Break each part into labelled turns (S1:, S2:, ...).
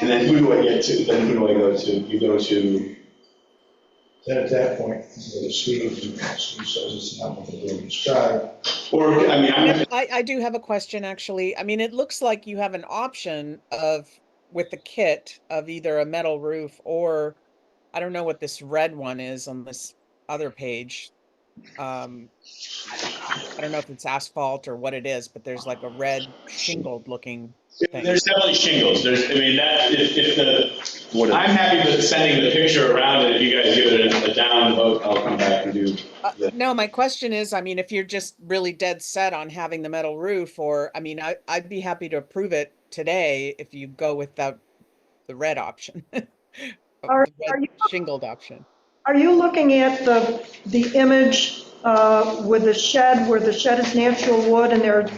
S1: And then who do I get to, then who do I go to? You go to,
S2: Then at that point, you go to Steve, and Steve says it's not what the board described.
S1: or, I mean, I'm,
S3: I, I do have a question, actually. I mean, it looks like you have an option of, with the kit of either a metal roof or, I don't know what this red one is on this other page. Um, I don't know if it's asphalt or what it is, but there's like a red shingled looking. Thanks.
S1: there's definitely shingles, there's, I mean, that, if, if the,
S4: What
S1: I'm happy with sending the picture around, and if you guys give it a a down vote, I'll come back and do.
S3: Uh,
S1: Yeah.
S3: No, my question is, I mean, if you're just really dead set on having the metal roof or, I mean, I, I'd be happy to approve it today if you go with the, the red option. The
S5: Are-
S3: red
S5: are you-
S3: Shingled option.
S5: Are you looking at the, the image uh, with the shed, where the shed is natural wood and there are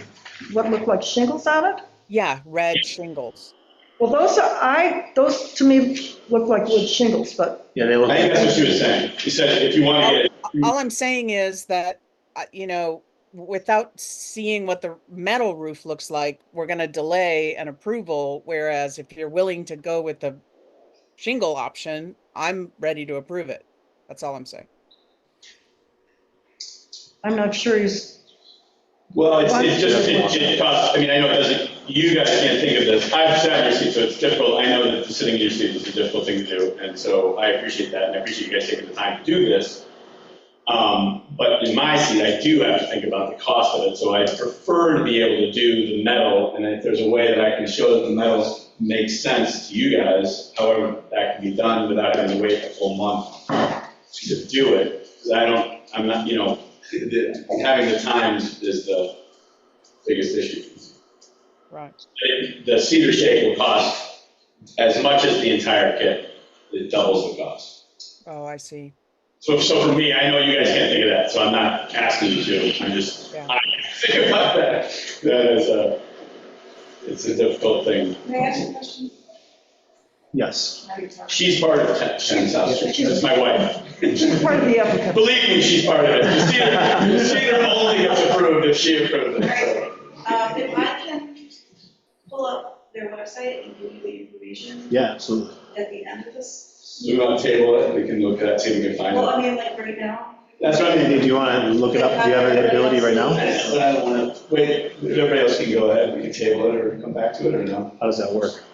S5: what look like shingles on it?
S3: Yeah, red shingles.
S5: Well, those are, I, those to me look like wood shingles, but
S4: Yeah, they look.
S1: I think that's what she was saying, she said, if you want to get, Mm.
S3: All I'm saying is that, uh, you know, without seeing what the metal roof looks like, we're gonna delay an approval, whereas if you're willing to go with the shingle option, I'm ready to approve it. That's all I'm saying.
S5: I'm not sure he's,
S1: well, it's, it just, it, it costs, I mean, I know it doesn't, you guys can't think of this, I've sat in your seat, so it's difficult, I know that sitting in your seat is a difficult thing to do, and so I appreciate that, and I appreciate you guys taking the time to do this. Um, but in my seat, I do have to think about the cost of it, so I prefer to be able to do the metal, and if there's a way that I can show that the metal makes sense to you guys, however that can be done without having to wait a full month to do it, because I don't, I'm not, you know, the- having the times is the biggest issue.
S3: Right.
S1: It- The cedar shake will cost as much as the entire kit, it doubles the cost.
S3: Oh, I see.
S1: So, so for me, I know you guys can't think of that, so I'm not asking you to, I'm just,
S3: Yeah.
S1: I can't think about that. That is a, it's a difficult thing.
S6: May I ask a question?
S4: Yes.
S1: She's part of the town South Street, that's my wife.
S5: he's part of the applicant.
S1: Believe me, she's part of it. The Cedar- the Cedar only gets approved if she approved it. so.
S6: Um, If I can pull up their website and give you the information
S4: Yeah, absolutely.
S6: at the end of this.
S1: We want to table it, we can look at it, see if we can find
S6: Well,
S1: it.
S6: I mean, like right now.
S1: That's what I mean.
S4: Do you want to look it up? Do you have any ability right now?
S1: But I don't want to, wait, everybody else can go ahead, we can table it or come back to it or no.
S4: How does that work?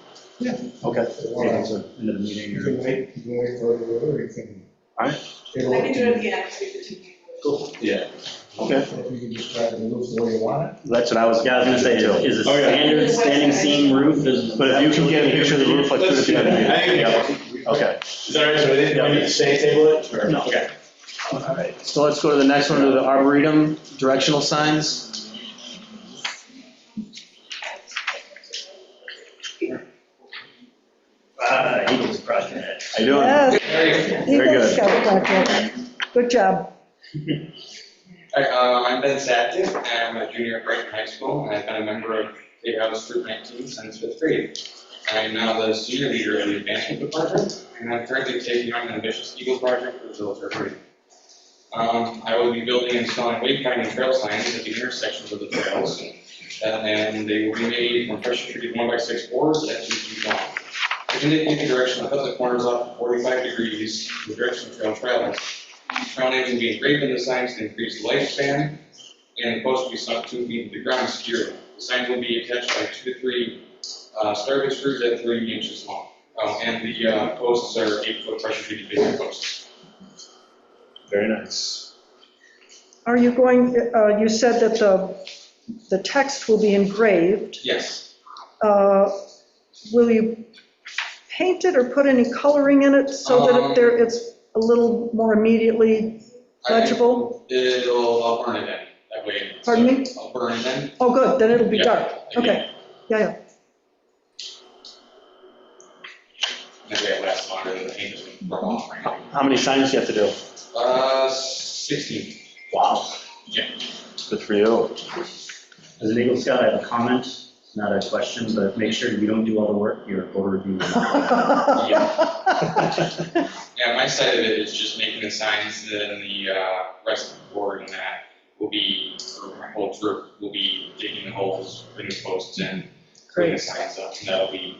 S2: Yeah.
S4: Okay.
S2: Yeah.
S4: So, End of the meeting
S2: You
S4: or?
S2: can wait, you can wait for it, or you can.
S4: All right.
S2: They
S6: I
S2: will-
S6: can do it at the end, so you can take it.
S1: Yeah.
S4: Okay,
S2: If you can describe the roof the way you want
S4: that's what I was, yeah, I was gonna say too.
S7: Is it
S1: Oh, yeah.
S7: standard standing seam roof? Is-
S4: But if you can get a picture of the roof, like,
S1: Let's
S4: put it
S1: do that.
S4: together.
S1: I think-
S4: Yeah. Okay.
S1: Is that all right, so we didn't, we need to say table it? or-
S4: No.
S1: Okay.
S4: All right. So let's go to the next one, to the arboretum directional signs.
S7: Ah, he was project.
S4: How you doing?
S5: Yes,
S4: Very good.
S5: Eagles Scout Project. Good job.
S8: Hi, um, I'm Ben Sackett, I'm a junior at Brighton High School, and I've been a member of the House Group 19 since fifth grade. I am now the senior leader of the advancement department, and I'm currently taking on an ambitious Eagle project for the village of Brighton. Um, I will be building and installing wayfinding trail signs at the intersections of the trails, and they will be made from pressure treated one by six boards at two feet long. They indicate the direction of the corners off to 45 degrees, the direction of trail travels. Trail names will be engraved in the signs to increase the lifespan, and the post will be sunk two feet into the ground securely. The signs will be attached by two to three uh, starboard screws at three inches long. Um, And the uh, posts are eight-foot pressure-treated basic posts.
S4: Very nice.
S5: Are you going, uh, you said that the, the text will be engraved.
S8: Yes,
S5: Uh, Will you paint it or put any coloring in it so that
S8: Um.
S5: it there, it's a little more immediately
S8: I-
S5: legible?
S8: it'll, I'll burn it in, that way. it's-
S5: Pardon me?
S8: I'll burn it in.
S5: Oh, good, then it'll be
S8: Yeah.
S5: dark. Okay,
S8: Again,
S5: yeah, yeah.
S8: That way it lasts longer than the paint doesn't burn off. or anything.
S4: How many signs do you have to do?
S8: Uh, 16.
S4: Wow.
S8: Yeah.
S4: Good for you.
S7: As an Eagle Scout, I have a comment, not a question, but make sure you don't do all the work, you're overviewing.
S8: Yeah, my side of it is just making the signs and the uh, rest of the board and that will be, or my whole troop will be digging the holes, putting the posts in, putting the signs up, and that'll be